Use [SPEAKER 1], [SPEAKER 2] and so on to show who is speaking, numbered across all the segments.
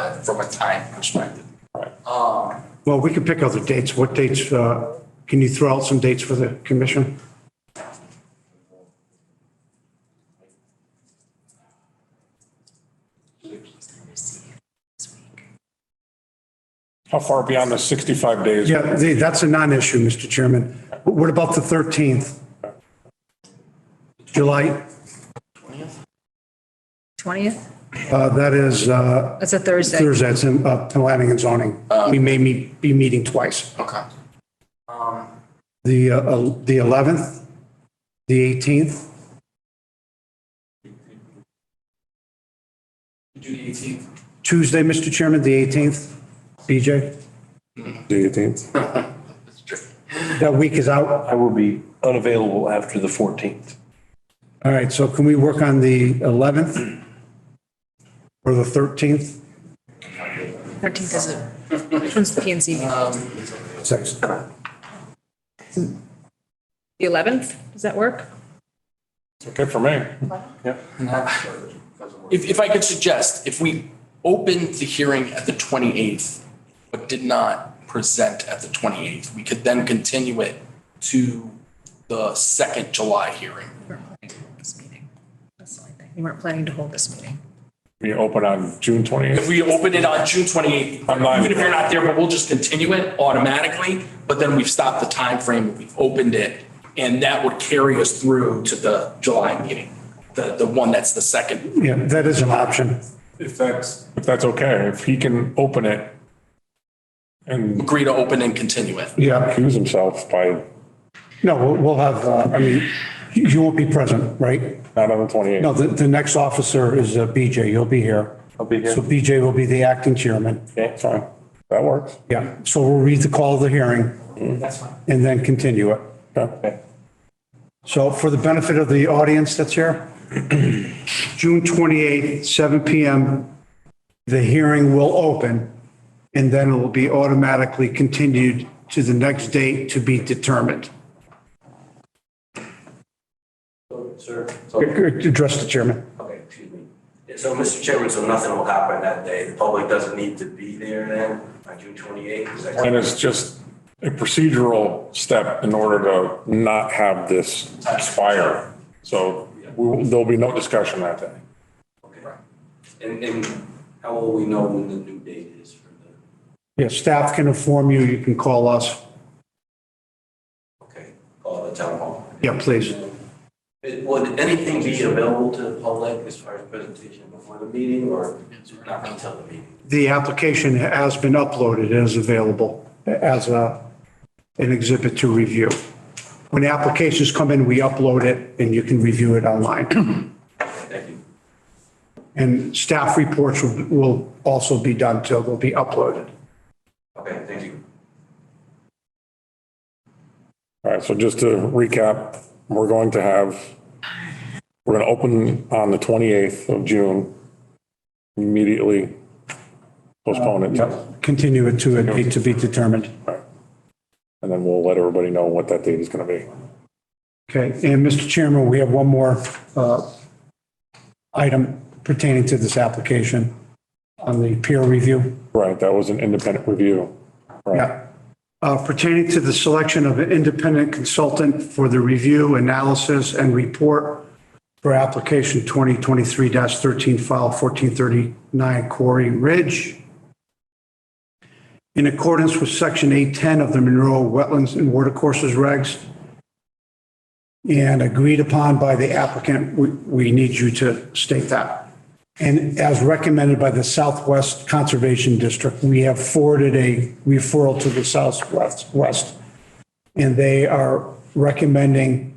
[SPEAKER 1] a, uh, from a time perspective. Um,
[SPEAKER 2] Well, we could pick other dates. What dates, uh, can you throw out some dates for the commission?
[SPEAKER 3] How far beyond the 65 days?
[SPEAKER 2] Yeah, the- that's a non-issue, Mr. Chairman. What about the 13th? July,
[SPEAKER 4] 20th?
[SPEAKER 2] uh, that is uh,
[SPEAKER 4] That's a Thursday.
[SPEAKER 2] Thursday, it's in uh, planning and zoning. We may meet- be meeting twice.
[SPEAKER 1] okay. Um,
[SPEAKER 2] The uh, el- the 11th, the 18th,
[SPEAKER 1] do the eighteenth.
[SPEAKER 2] Tuesday, Mr. Chairman, the 18th, BJ?
[SPEAKER 3] The 18th.
[SPEAKER 2] That week is out.
[SPEAKER 5] I will be unavailable after the 14th.
[SPEAKER 2] All right, so can we work on the 11th or the 13th?
[SPEAKER 4] 13th is a, which one's the PNC?
[SPEAKER 2] Six.
[SPEAKER 4] The 11th? Does that work?
[SPEAKER 3] It's okay for me.
[SPEAKER 1] If, if I could suggest, if we opened the hearing at the 28th, but did not present at the 28th, we could then continue it to the second July hearing.
[SPEAKER 4] We weren't planning to hold this meeting. That's the only thing. We weren't planning to hold this meeting.
[SPEAKER 3] We open on June 28th.
[SPEAKER 1] If we open it on June 28th,
[SPEAKER 3] I'm not-
[SPEAKER 1] even if you're not there, but we'll just continue it automatically, but then we've stopped the time timeframe, we've opened it, and that would carry us through to the July meeting, the, the one that's the second.
[SPEAKER 2] Yeah, that is an option.
[SPEAKER 3] If that's. If that's okay, if he can open it and
[SPEAKER 1] Agree to open and continue it.
[SPEAKER 2] Yeah,
[SPEAKER 3] accuse himself by
[SPEAKER 2] no, we'll- we'll have, uh, I mean, you you won't be present, right?
[SPEAKER 3] not on the 28th.
[SPEAKER 2] No, the, the next officer is uh, BJ, you'll be here.
[SPEAKER 5] I'll be here.
[SPEAKER 2] So BJ will be the acting chairman.
[SPEAKER 3] Okay, fine. That works.
[SPEAKER 2] Yeah, so we'll read the call of the hearing
[SPEAKER 1] That's fine.
[SPEAKER 2] and then continue it.
[SPEAKER 3] Okay.
[SPEAKER 2] So for the benefit of the audience that's here, June 28th, 7 PM, the hearing will open and then it will be automatically continued to the next date to be determined.
[SPEAKER 6] Sir, so,
[SPEAKER 2] Address the chairman.
[SPEAKER 6] okay, excuse me. Yeah, So, Mr. Chairman, so nothing will happen that day. The public doesn't need to be there then on June 28th? Is that
[SPEAKER 3] And it's just a procedural step in order to not have this expire. So we will- there'll be no discussion that day.
[SPEAKER 6] Okay. And, and how will we know when the new date is for the,
[SPEAKER 2] Yeah, staff can inform you, you can call us.
[SPEAKER 6] okay, call the town hall?
[SPEAKER 2] Yeah, please.
[SPEAKER 6] It- Would anything be available to the public as far as presentation before the meeting or not until the meeting?
[SPEAKER 2] The application has been uploaded, it is available as a, an exhibit to review. When applications come in, we upload it and you can review it online.
[SPEAKER 6] Thank you.
[SPEAKER 2] And staff reports will, will also be done till they'll be uploaded.
[SPEAKER 6] Okay, thank you.
[SPEAKER 3] All right, so just to recap, we're going to have, we're going to open on the 28th of June, immediately postpone
[SPEAKER 2] Uh,
[SPEAKER 3] it, and
[SPEAKER 2] Continue it to a date to be determined.
[SPEAKER 3] then we'll let everybody know what that date is going to be.
[SPEAKER 2] Okay, and Mr. Chairman, we have one more uh, item pertaining to this application on the peer review.
[SPEAKER 3] Right, that was an independent review. Right,
[SPEAKER 2] Yeah. Uh, Pertaining to the selection of an independent consultant for the review, analysis, and report for application 2023-13, file 1439 Quarry Ridge. In accordance with Section 810 of the Monroe Wetlands and Watercourses Regs, and agreed upon by the applicant, we- we need you to state that. And as recommended by the Southwest Conservation District, we have forwarded a referral to the Southwest, West. And they are recommending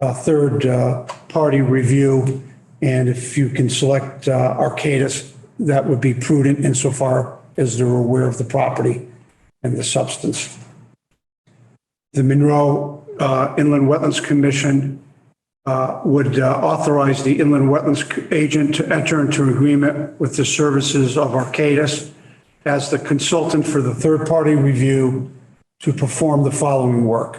[SPEAKER 2] a third-party review. And if you can select uh, Arcadis, that would be prudent insofar as they're aware of the property and the substance. The Monroe uh, Inland Wetlands Commission would uh, authorize the inland wetlands agent to enter into agreement with the services of Arcadis as the consultant for the third-party review to perform the following work.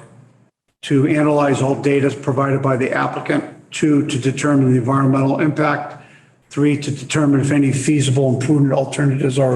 [SPEAKER 2] To analyze all data provided by the applicant. Two, to determine the environmental impact. Three, to determine if any feasible and prudent alternatives are